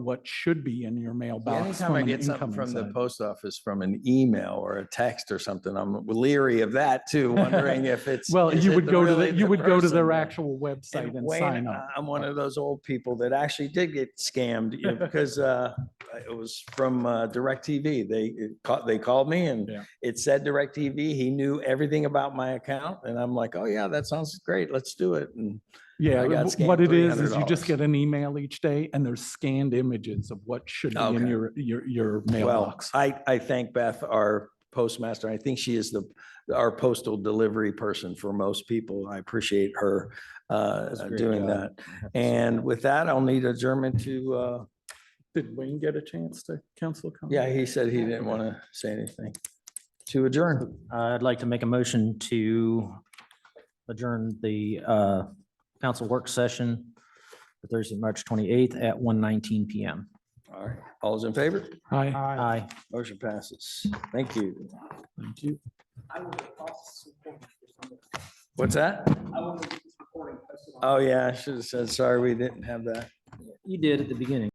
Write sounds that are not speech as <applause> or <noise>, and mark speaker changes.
Speaker 1: what should be in your mailbox
Speaker 2: Anytime
Speaker 1: from
Speaker 2: I
Speaker 1: an
Speaker 2: get something
Speaker 1: incoming
Speaker 2: from the
Speaker 1: side.
Speaker 2: post office, from an email or a text or something, I'm leery of that
Speaker 1: <laughs>
Speaker 2: too, wondering if it's.
Speaker 1: Well,
Speaker 2: is
Speaker 1: you
Speaker 2: it
Speaker 1: would go to,
Speaker 2: really
Speaker 1: the you would go to
Speaker 2: person?
Speaker 1: their actual website
Speaker 2: And
Speaker 1: and
Speaker 2: Wayne,
Speaker 1: sign up.
Speaker 2: I- I'm one of those old people that actually did get scammed
Speaker 1: <laughs>
Speaker 2: you know, because uh, it was from uh, DirecTV. They it ca- they called me and
Speaker 1: Yeah.
Speaker 2: it said DirecTV. He knew everything about my account, and I'm like, oh yeah, that sounds great. Let's do it. And
Speaker 1: Yeah,
Speaker 2: I
Speaker 1: w-
Speaker 2: got scammed
Speaker 1: what it is, is you
Speaker 2: $300.
Speaker 1: just get an email each day and there's scanned images of what should be in
Speaker 2: Okay.
Speaker 1: your, your, your
Speaker 2: well,
Speaker 1: mailbox.
Speaker 2: I I thank Beth, our postmaster. I think she is the our postal delivery person for most people. I appreciate her uh,
Speaker 3: That's a great
Speaker 2: doing
Speaker 3: job.
Speaker 2: that. And with that, I'll need adjournment to. Uh,
Speaker 1: Did Wayne get a chance to counsel? comment?
Speaker 2: yeah, he said he didn't want to say anything. To adjourn.
Speaker 3: I'd like to make a motion to adjourn the uh, council work session for Thursday, March 28th at 1:19 PM.
Speaker 2: All right, all's in favor?
Speaker 1: Hi.
Speaker 3: Aye.
Speaker 2: Motion passes. Thank you.
Speaker 1: Thank you.
Speaker 2: What's that? Oh, yeah, I should have said, sorry, we didn't have that.
Speaker 3: You did at the beginning.